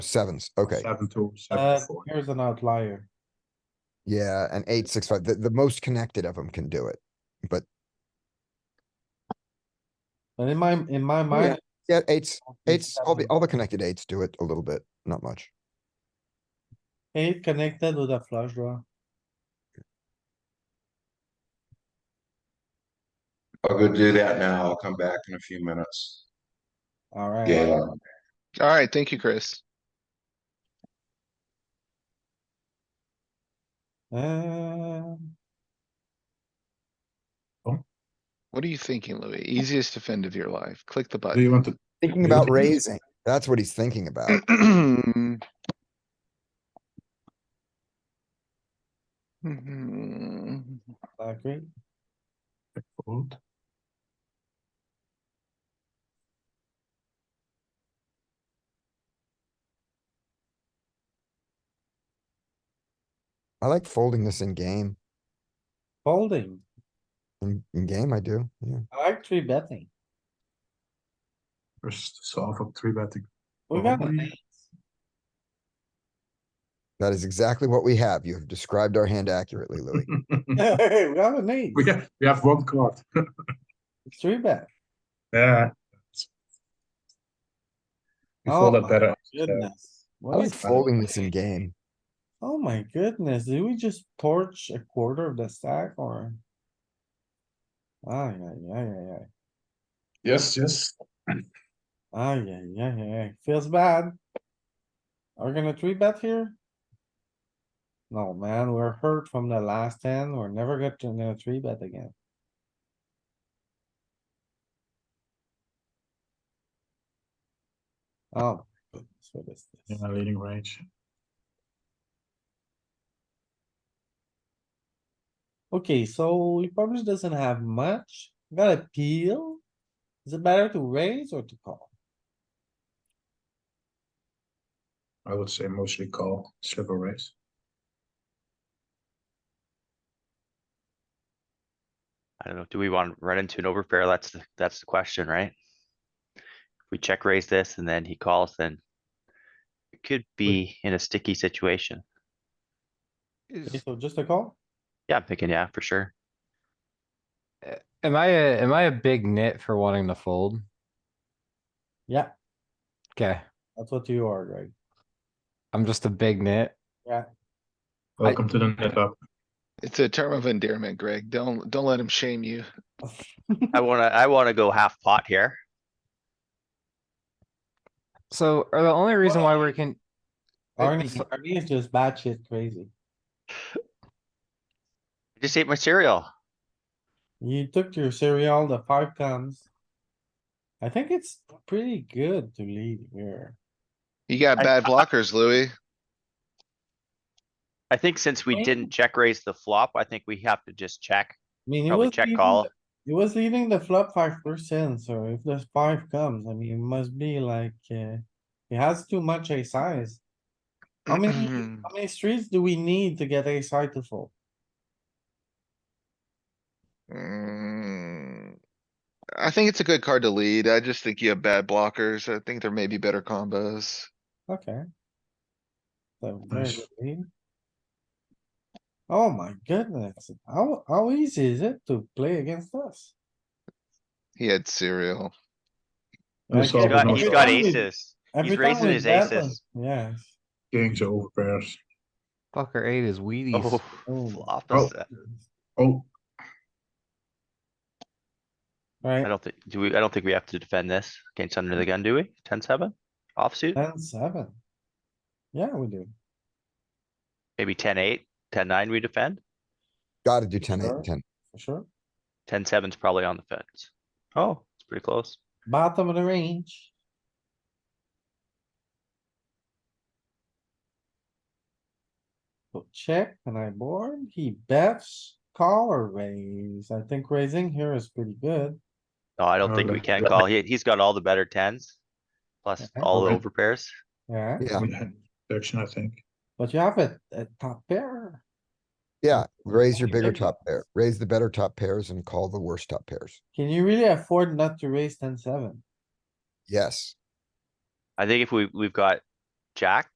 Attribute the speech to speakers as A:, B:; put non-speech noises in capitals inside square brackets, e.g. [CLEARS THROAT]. A: Sevens, okay.
B: Seven two,
C: Uh,
B: seven four.
C: here's an outlier.
A: Yeah, and eight, six, five, the, the most connected of them can do it.
C: And in my, in my mind.
A: Yeah, eights, eights, all the,
C: seven.
A: all the connected eights do it a little bit, not much.
C: Eight connected with a flush draw.
D: I'll go do that now. I'll come back in a few minutes.
C: Alright.
D: Yeah.
E: Alright, thank you, Chris.
C: Um,
E: What are you thinking, Louis? Easiest defend of your life. Click the
B: Do you
E: button.
B: want to,
A: Thinking
B: Yeah,
A: about
B: but he's-
A: raising, that's what he's thinking about.
E: [CLEARS THROAT] [CLEARS THROAT] Mhm.
C: black great.
B: fold?
A: I like folding this in game,
C: folding.
A: in, in game I do, yeah.
C: I like three betting.
B: First solve of three betting.
C: We got
B: Probably.
C: an [LAUGHS] eight.
A: That is exactly what we have. You have described our hand accurately,
B: [LAUGHS]
A: Louis.
C: We got an eight.
B: [LAUGHS] We have, we have one
C: [LAUGHS]
B: card.
C: It's Three bet.
B: Yeah. We
C: Oh
B: fold that
C: my
B: better.
C: Goodness.
A: I
C: What
A: like
C: is,
A: folding this in game.
C: oh my goodness, did we just torch a quarter of the stack or? Ay, ay, ay, ay, ay.
B: Yes, yes.
C: Ay, ay, ay, ay, ay. Feels bad. Are we gonna three bet here? No, man, we're hurt from the last ten. We're never get to another three bet again. Oh, goodness, what is
B: In
C: this?
B: a leading range.
C: Okay, so he probably doesn't have much. Got a peel. Is it better to raise or to call?
B: I would say mostly call, sliver raise.
F: I don't know, do we want to run into an overpair? That's, the that's the question, right? If we check raise this and then he calls, then it could be in a sticky situation.
C: Okay,
G: Is,
C: So just a call?
F: Yeah, I'm thinking, yeah, for sure.
G: am I a, am I a big nit for wanting to fold?
C: Yeah,
G: Okay,
C: that's what you are, Greg.
G: I'm just a big nit.
B: Welcome to the net up.
E: It's a term of endearment, Greg. Don't, don't let him shame you.
F: I wanna, I wanna go half pot here.
G: So, are the only reason why we're can, I
C: Arnie,
G: think so-
C: Arnie is just batshit crazy.
F: I Just ate my cereal.
C: You took your cereal, the five comes. I think it's pretty good to lead here.
E: You got
F: I-
E: bad
F: I-
E: blockers, Louis.
F: I think since we
C: Right.
F: didn't check raise the flop, I think we have to just check,
C: I mean, it
F: probably
C: was.
F: check
C: leading
F: call.
C: the- It was leading the flop five percent, so if the five comes, I mean, it must be like, uh, it has too much a size. How many,
F: [CLEARS THROAT]
C: how many streets do we need to get a side to fold?
E: Mm. I think it's a good card to lead. I just think you have bad blockers. I think there may be better combos.
C: Okay. So very
B: Nice.
C: good lead. Oh my goodness, how, how easy is it to play against us?
E: He had cereal.
B: You
C: Like,
B: solve
F: He's
B: with
F: got,
B: no
F: he's got
B: shot.
C: Every time we-
F: aces.
C: every
F: He's
C: time
F: raising
C: we
F: his
C: bet them,
F: aces.
C: Yes.
B: Kings over pairs.
G: fucker ate his Wheaties?
F: Oh,
C: Oh.
F: flop
B: Oh.
F: is a-
B: Oh,
F: I
C: Right,
F: don't think, do we, I don't think we have to defend this against under the gun, do we? Ten seven offsuit,
C: ten, seven. Yeah, we do.
F: maybe ten eight, ten nine we defend?
A: Gotta do ten,
C: Sure.
A: eight, ten.
C: For sure.
F: Ten seven's probably on the fence. Oh, it's pretty close.
C: Bottom of the range. So check and I board. He bets, call or raise. I think raising here is pretty good.
F: No, I don't
B: Oh,
F: think we
B: that's
F: can
B: good.
F: call. He, he's got all the better tens. Plus
C: Yeah,
F: all the
B: okay.
F: overpairs.
C: Yeah,
A: Yeah,
B: we had Action, I think.
C: but you have a, a top pair.
A: yeah, raise your bigger
F: There you go.
A: top pair, raise the better top pairs and call the worst top pairs.
C: Can you really afford not to raise ten, seven?
A: Yes,
F: I think if we, we've got Jack